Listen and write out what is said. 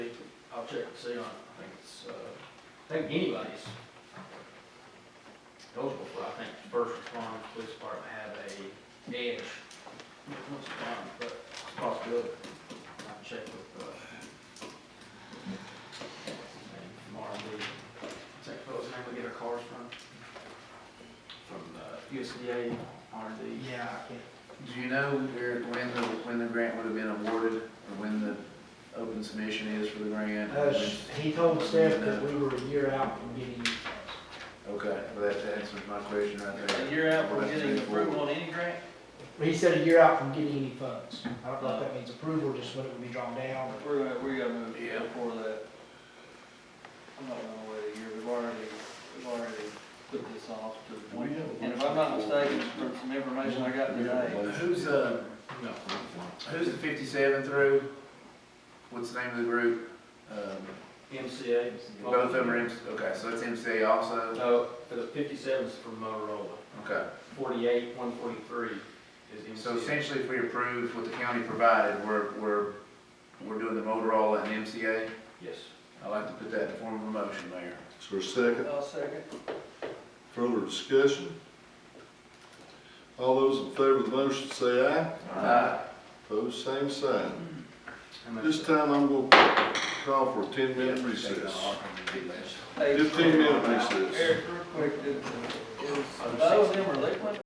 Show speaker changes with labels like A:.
A: I'll check and see on, I think it's, uh, I think anybody's eligible for, I think, first responders, police department have a edge. Once upon, but it's a possibility. I'll check with, uh, tomorrow, we take those, and we get our cars from, from uh, USDA, RD.
B: Yeah, I can't.
C: Do you know, Eric, when the, when the grant would have been awarded, or when the open submission is for the grant?
B: Uh, he told Steph that we were a year out from getting these funds.
C: Okay, well, that answers my question right there.
A: A year out, we're
C: Let's
A: getting
C: move forward.
A: approval on any grant?
B: He said a year out from getting any funds. I don't know if that means approval, or just when it would be drawn down, or
A: We're gonna, we're gonna move
C: Yeah.
A: before that. I'm not gonna wait a year, we've already, we've already put this off to one. And if I'm not mistaken, from some information I got today,
C: Who's, uh, who's the fifty-seven through? What's the name of the group? Um,
A: MCA.
C: Both of them are, MC okay, so it's MCA also?
A: No, for the fifty-seven's from Motorola,
C: Okay,
A: forty-eight, one forty-three is
C: so essentially if we approve what the county provided, we're, we're, we're doing the Motorola and MCA?
A: Yes.
C: I'd like to put that in form of a motion, Mayor.
D: Is there a second?
A: I'll second.
D: Further discussion? All those in favor of the motion say aye.
C: Aye.
D: Opposed, same sign. This time I'm going to call for a ten-minute recess.
A: Hey,
D: Fifteen minute recess.
A: Eric, real quick, did- is, those of them are liquid?